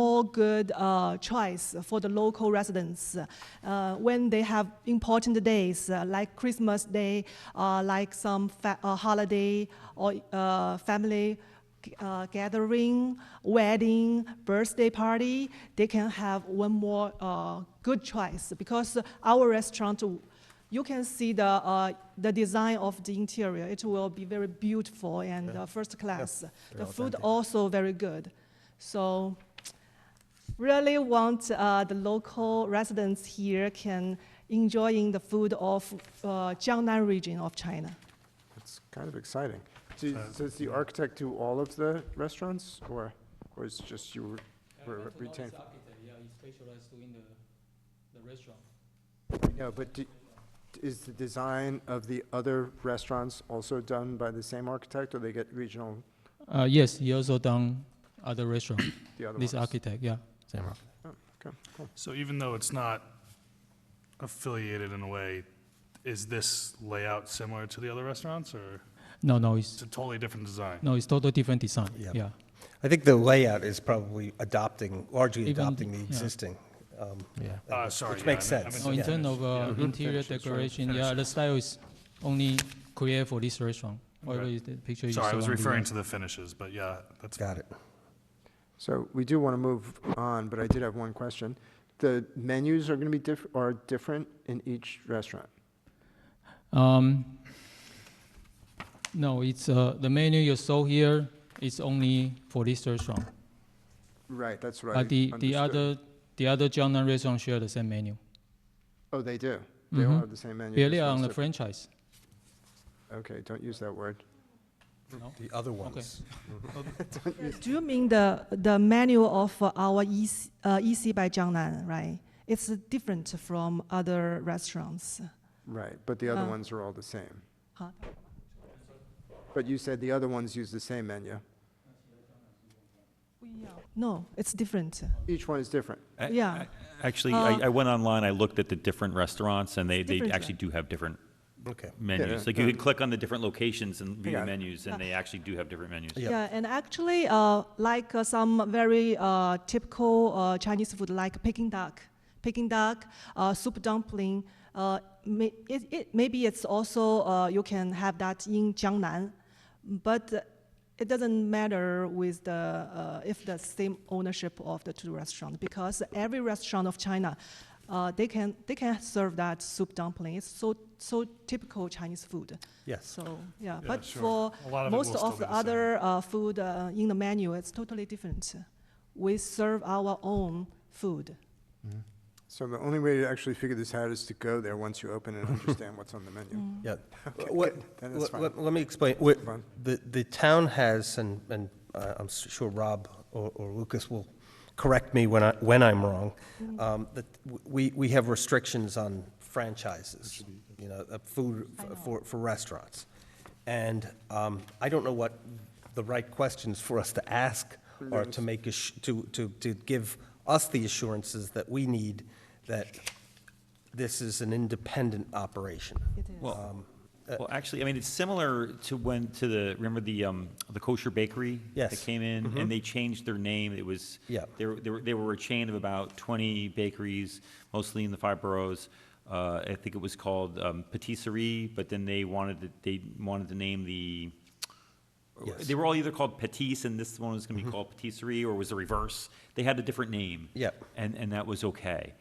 no good uh, choice for the local residents uh, when they have important days uh, like Christmas Day, uh, like some fa- uh, holiday or uh, family uh, gathering, wedding, birthday party, they can have one more uh, good choice because our restaurant, you can see the, uh, the design of the interior. It will be very beautiful and uh, first class. The food authentic. also very good. So really want uh, the local residents here can enjoying the food of uh, Jiangnan region of China. It's kind of exciting. So you- so it's the architect do all of the restaurants, or, or it's just you were- were retained? yeah, he specialized in the, the restaurant. No, but do- is the design of the other restaurants also done by the same architect, or they get regional, Uh, yes, he also done other restaurant, the other ones? this architect, yeah. Same Okay, cool. So even though it's not affiliated in a way, is this layout similar to the other restaurants or No, no, it's it's, a totally different design? no, it's total different design, Yeah. yeah. I think the layout is probably adopting, largely Even- adopting the yeah. existing. um, Yeah. Uh, sorry. Which yeah, makes I meant- I sense. No, meant in to terms finish, of uh, Yeah. Finish interior it, sorry. decoration, yeah, the style is only created for this restaurant. Whatever Okay. is the picture yeah. you Sorry, I saw was on the referring wall. to the finishes, but yeah, that's. Got it. So we do want to move on, but I did have one question. The menus are going to be diff, are different in each restaurant? Um, no, it's uh, the menu you saw here is only for this restaurant. Right, that's right. But the, the other the other Jiangnan restaurant share the same menu. Oh, they do? They all Mhm. have the same menu? Yeah, just they are one's on the different. franchise. Okay, don't use that word. The other ones. Do you mean the, the menu of uh, our EC, uh, EC by Jiangnan, right? It's uh, different from other restaurants. Right, but the other Oh. ones are all the same. Huh? But you said the other ones use the same menu. No, it's different. Each one is different. I- Yeah. I- Actually, Uh, I, I went online, I looked at the different restaurants, and they, they Different, actually do have different Okay. menus. yeah, Like, you yeah. could click on the different locations and view Yeah. the menus, Uh, and they actually do have different menus. Yeah. Yeah, and actually, uh, like uh, some very uh, typical uh, Chinese food, like Peking duck, Peking duck, uh, soup dumpling. Uh, may, it, it, maybe it's also uh, you can have that in Jiangnan, but uh, it doesn't matter with the uh, if the same ownership of the two restaurants because every restaurant of China. Uh, they can they can serve that soup dumpling. It's so so typical Chinese food. Yes. So yeah, Yeah, but sure. for A lot of it most will still of be the the same. other uh, food uh, in the menu, it's totally different. We serve our own food. So the only way to actually figure this out is to go there once you open and understand what's on the menu. Mm. Yeah. Okay, What- good, then it's let- fine. let- Let me explain. What- Fine. Um, The, the town has, and, and uh, I'm s- sure Rob or or Lucas will correct me when I, when I'm wrong, Mm-hmm. um, that w- we, we have restrictions on franchises, you know, uh, food f- for, for restaurants. And um, I don't know what the right questions for us to ask are to make, ass- to, to, to give us the assurances that we need that this is an independent operation. It is. Well, Uh, well, actually, I mean, it's similar to when, to the, remember the, um, the kosher bakery? Yes. Mm-hmm. That came in, and they changed their name, it was. Yeah. They were, they were, they were a chain of about twenty bakeries, mostly in the five boroughs. Uh, I think it was called, um, Patisserie, but then they wanted, to- they wanted to name the, Yes. Mm-hmm. they were all either called Patisse, and this one was gonna be called Patisserie, or was the reverse. They had a different name. Yep. And, and that was okay.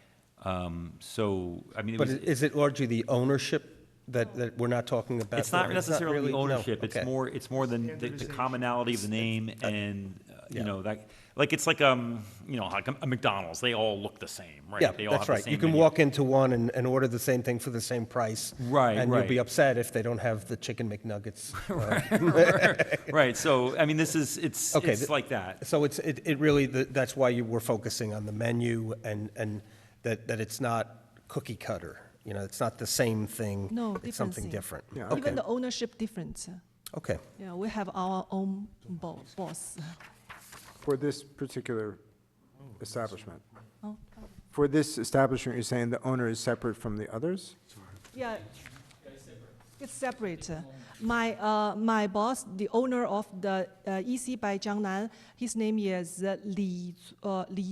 Um, so, I mean, it But was. i- is it largely the ownership that, that we're not talking about? It's not here? necessarily the really- no, ownership, it's okay. more, it's more than the- the commonality of the name and, uh, yeah. you know, that, like, it's like, um, you know, like a McDonald's, they all look the same, right? Yeah, They all have that's the right. You same can menu. walk into one and, and order the same thing for the same price. Right, And you'll be right. upset if they don't have the chicken McNuggets. uh, Right, so, I mean, this is, it's, Okay, it's th- like that. So it's, it, it really, th- that's why you were focusing on the menu and, and that, that it's not cookie cutter. You know, it's not the same thing. No, It's different something thing. different. Yeah. Even Okay, the ownership difference. okay. Yeah, we have our own bo- boss. For this particular establishment, Oh. for this establishment, you're saying the owner is separate from the others? Yeah. It's separate. My, uh, my boss, the E owner of the uh, EC by Jiangnan, his name is uh, Li, uh, Li